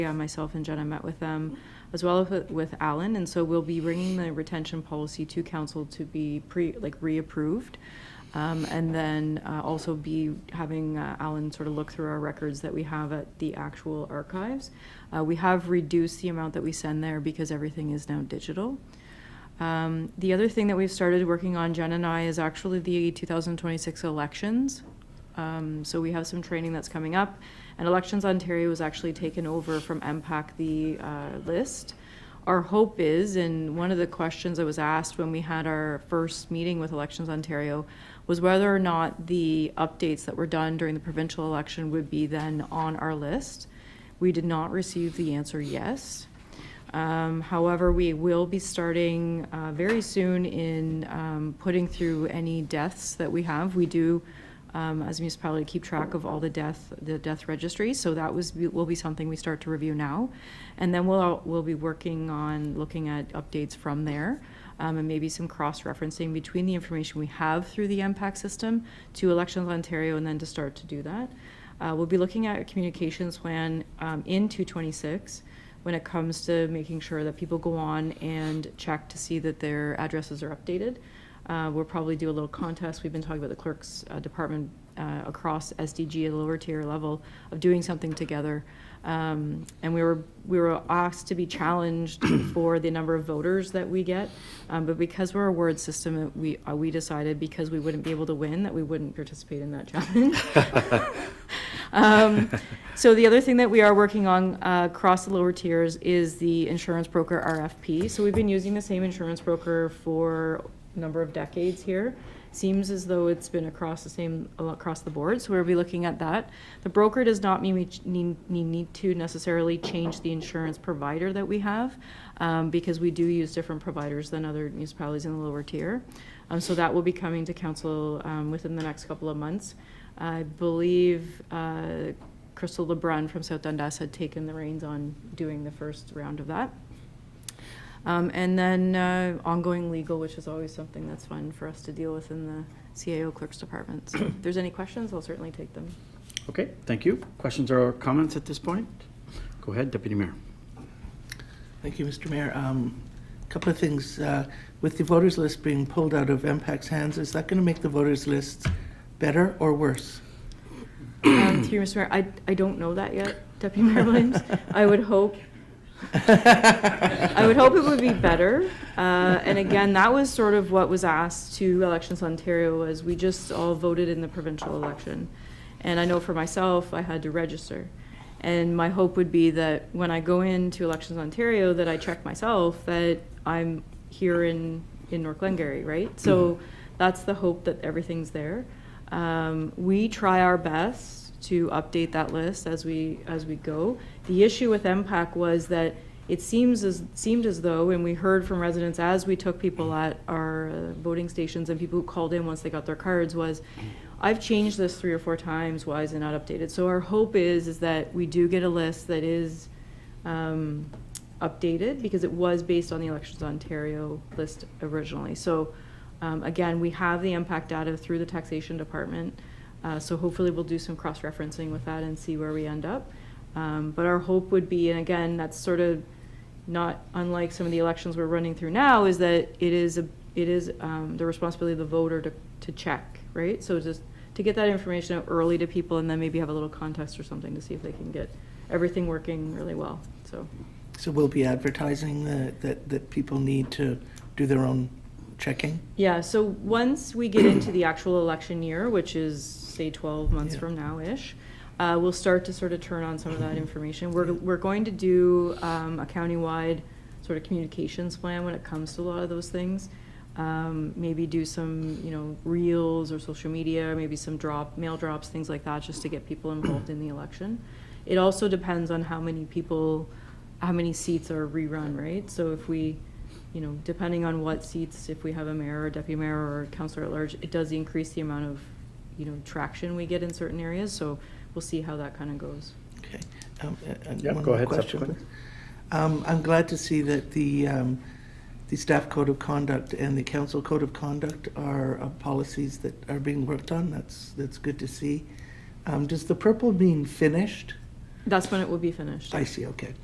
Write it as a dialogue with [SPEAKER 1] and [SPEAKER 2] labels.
[SPEAKER 1] Yeah, myself and Jenna met with them, as well as with Alan, and so we'll be bringing the retention policy to council to be pre, like, reapproved. Um, and then, uh, also be having uh, Alan sort of look through our records that we have at the actual archives. Uh, we have reduced the amount that we send there because everything is now digital. Um, the other thing that we've started working on, Jen and I, is actually the 2026 elections. Um, so we have some training that's coming up, and Elections Ontario was actually taken over from MPAC the uh, list. Our hope is, and one of the questions that was asked when we had our first meeting with Elections Ontario was whether or not the updates that were done during the provincial election would be then on our list. We did not receive the answer yes. Um, However, we will be starting uh, very soon in um, putting through any deaths that we have. We do, um, as a municipality, keep track of all the death, the death registry, so that was, will be something we start to review now. And then we'll, we'll be working on looking at updates from there, um, and maybe some cross-referencing between the information we have through the MPAC system to Elections Ontario, and then to start to do that. Uh, We'll be looking at a communications plan um, in 226 when it comes to making sure that people go on and check to see that their addresses are updated. Uh, We'll probably do a little contest. We've been talking about the clerk's uh, department uh, across SDG at a lower tier level of doing something together. Um, And we were, we were asked to be challenged for the number of voters that we get. Um, But because we're a word system, it- we, uh, we decided because we wouldn't be able to win, that we wouldn't participate in that challenge. Um, So the other thing that we are working on uh, across the lower tiers is the insurance broker RFP. So we've been using the same insurance broker for a number of decades here. Seems as though it's been across the same, uh, across the board, so we'll be looking at that. The broker does not mean we ch- need, need- need to necessarily change the insurance provider that we have, um, because we do use different providers than other municipalities in the lower tier. Um, So that will be coming to council um, within the next couple of months. I believe uh, Crystal LeBrun from South Dundas had taken the reins on doing the first round of that. Um, And then uh, ongoing legal, which is always something that's fun for us to deal with in the CAO Clerk's Department. So if there's any questions, I'll certainly take them.
[SPEAKER 2] Okay, thank you. Questions or comments at this point? Go ahead, Deputy Mayor.
[SPEAKER 3] Thank you, Mr. Mayor. A Couple of things. Uh, With the voters list being pulled out of MPAC's hands, is that going to make the voters list better or worse?
[SPEAKER 1] Um, Through you, Mr. Mayor, I, I don't know that yet, Deputy Mayor Williams. I would hope I would hope it would be better. Uh, And again, that was sort of what was asked to Elections Ontario, was we just all voted in the provincial election. And I know for myself, I had to register. And my hope would be that when I go into Elections Ontario, that I check myself that I'm here in, in North Glengarry, right? So that's the hope that everything's there. Um, We try our best to update that list as we, as we go. The issue with MPAC was that it seems as, seemed as though, and we heard from residents as we took people at our uh, voting stations and people who called in once they got their cards, was, I've changed this three or four times, why is it not updated? So our hope is, is that we do get a list that is um, updated, because it was based on the Elections Ontario list originally. So um, Again, we have the impact data through the taxation department, uh, so hopefully we'll do some cross-referencing with that and see where we end up. Um, But our hope would be, and again, that's sort of not unlike some of the elections we're running through now, is that it is, a it is um, the responsibility of the voter to, to check, right? So just to get that information out early to people and then maybe have a little contest or something to see if they can get everything working really well, so.
[SPEAKER 3] So we'll be advertising the- that, that people need to do their own checking?
[SPEAKER 1] Yeah, so once we get into the actual election year, which is, say, 12 months
[SPEAKER 3] Yeah.
[SPEAKER 1] from now-ish, uh, we'll start to sort of turn on some of that information. We're, we're going to do um, a countywide sort of communications plan when it comes to a lot of those things. Um, Maybe do some, you know, reels or social media, maybe some drop, mail drops, things like that, just to get people involved in the election. It also depends on how many people, how many seats are rerun, right? So if we, you know, depending on what seats, if we have a mayor or deputy mayor or counselor at large, it does increase the amount of, you know, traction we get in certain areas, so we'll see how that kind of goes.
[SPEAKER 3] Okay. Um, a- and
[SPEAKER 2] Yeah,
[SPEAKER 3] one
[SPEAKER 2] go
[SPEAKER 3] more
[SPEAKER 2] ahead,
[SPEAKER 3] question,
[SPEAKER 2] subsequent.
[SPEAKER 3] please. Um, I'm glad to see that the, um, the staff code of conduct and the council code of conduct are uh, policies that are being worked on. That's, that's good to see. Um, Does the purple mean finished?
[SPEAKER 4] That's when it will be finished.
[SPEAKER 1] I see, okay.